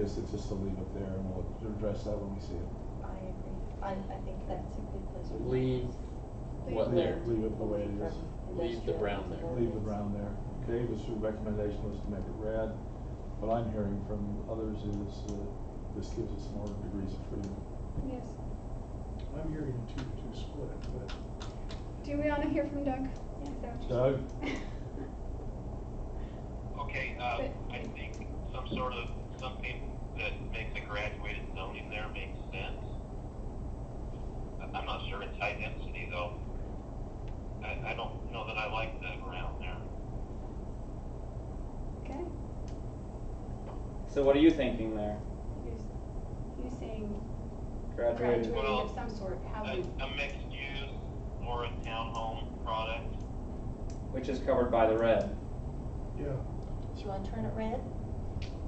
is, it's just to leave it there and we'll address that when we see it. I agree. I, I think that's a good place. to Leave what Leave- there, Leave it the way it is. leave the brown there. Leave it brown there. Okay, this recommendation was to make it red. What I'm hearing from others is uh this gives us more degrees of freedom. Yes. I'm hearing a two to two split, but Do we want to hear from Doug? Is that what Doug, you- Okay, uh, But- I think some sort of, something that makes a graduated zoning there makes sense. I- I'm not sure it's high density though. I, I don't know that I like that around there. Okay. So what are you thinking there? You're, s- you're saying Graduated? graduating Well, of some sort, how A, we, a mixed use or a townhome product, Which is covered by the red. yeah, Do you want to turn it red?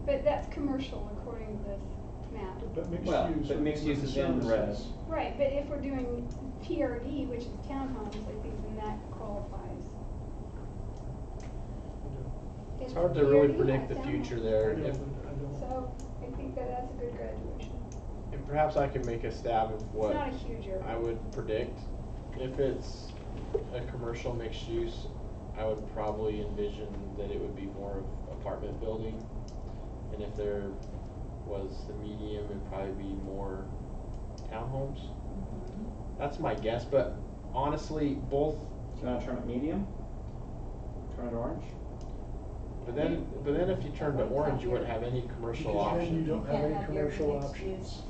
but that's commercial according to this map. but mixed use. Well, but with- mixed use with is in red. services. Right, but if we're doing PRD, which is townhomes, I think then that qualifies. It's Is hard to really PRD predict a the townhome? future I there. don't, I If, don't, So I think that that's a good graduation. and perhaps I can make a stab of It's what not a huge area. I would predict. If it's a commercial mixed use, I would probably envision that it would be more of apartment building. And if there was the medium, it'd probably be more townhomes. That's my guess, but honestly, both Do you want to turn it medium? Turn it orange? But then, but then if you turned to orange, you wouldn't have any commercial because then you option. don't have Can't any have your commercial mixed options. use.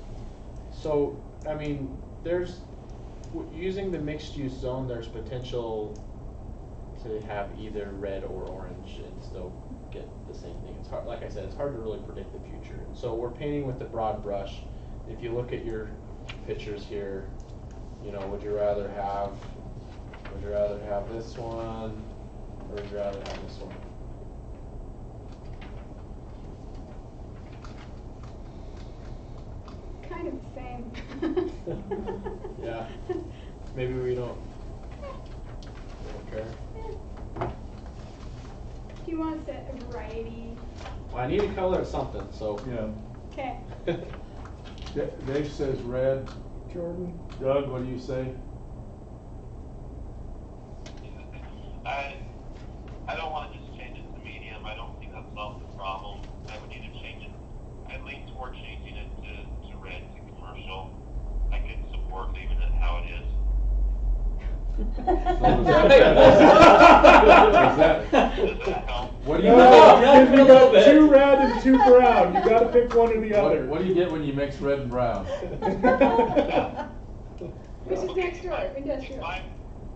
So, I mean, there's, w- using the mixed-use zone, there's potential to have either red or orange and still get the same thing. It's hard, like I said, it's hard to really predict the future. And so we're painting with the broad brush. If you look at your pictures here, you know, would you rather have, would you rather have this one, or would you rather have this one? Kind of the same. Yeah. Maybe we don't, we don't care. He wants a a variety. Well, I need to color it something, so. yeah, Okay. Da- Dave says red. Jordan, Doug, what do you say? I, I don't wanna just change it to medium, I don't think that solves the problem. I would either change it, I lean toward changing it to, to red to commercial. I could support leaving it how it is. Does that help? What do you, No, No, what, no, if you a little bit. got two red and two brown, you gotta pick one or the other. what do you get when you mix red and brown? Which is Okay, next if I- door, industrial. If I'm,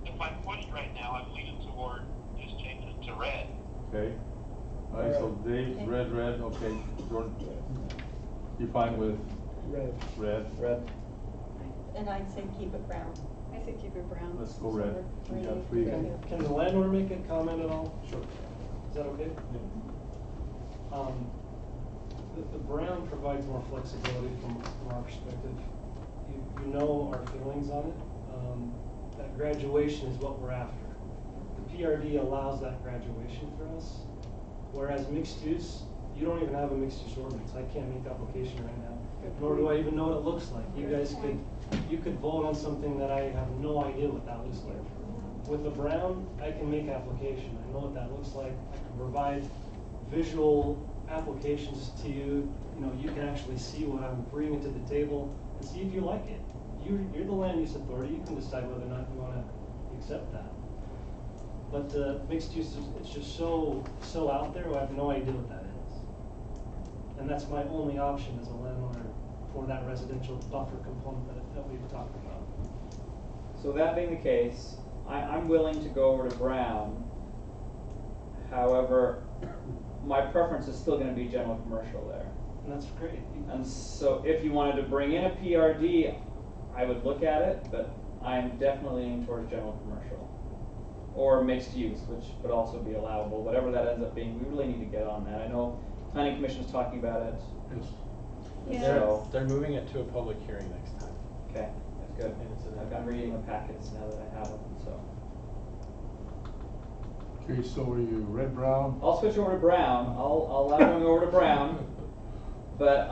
if I'm pushed right now, I'm leaning toward just changing it to red. Okay. All right, so Dave's red, red, okay, Jordan, you're fine with Red, red? Red. And I'd say keep it brown. I said keep it brown. Let's go red. We got three. Can can the landlord make a comment at all? Sure. Is that okay? Um, The, the brown provides more flexibility from, from our perspective. You, you know our feelings on it. Um, That graduation is what we're after. The PRD allows that graduation for us, whereas mixed use, you don't even have a mixed use ordinance. I can't make application right now, Good nor do I point. even know what it looks like. You Good guys could, you could vote on something that I have no idea what that looks like. With the brown, I can make application, I know what that looks like, I can provide visual applications to you, you know, you can actually see what I'm bringing to the table and see if you like it. You, you're the land use authority, you can decide whether or not you wanna accept that. But the mixed use, is it's just so, so out there, I have no idea what that is. And that's my only option as a landlord for that residential buffer component that, that we've talked about. So that being the case, I, I'm willing to go over to brown. However, my preference is still gonna be general commercial there. And that's great. And so if you wanted to bring in a PRD, I would look at it, but I'm definitely leaning towards general commercial. Or mixed use, which would also be allowable, whatever that ends up being, we really need to get on that. I know planning commission's talking about it, Yeah. They're, So- they're moving it to a public hearing next time. okay, that's good. And it's in I've that- got reading the packets now that I have them, so. Okay, so are you red, brown? I'll switch over to brown, I'll, I'll allow going over to brown, but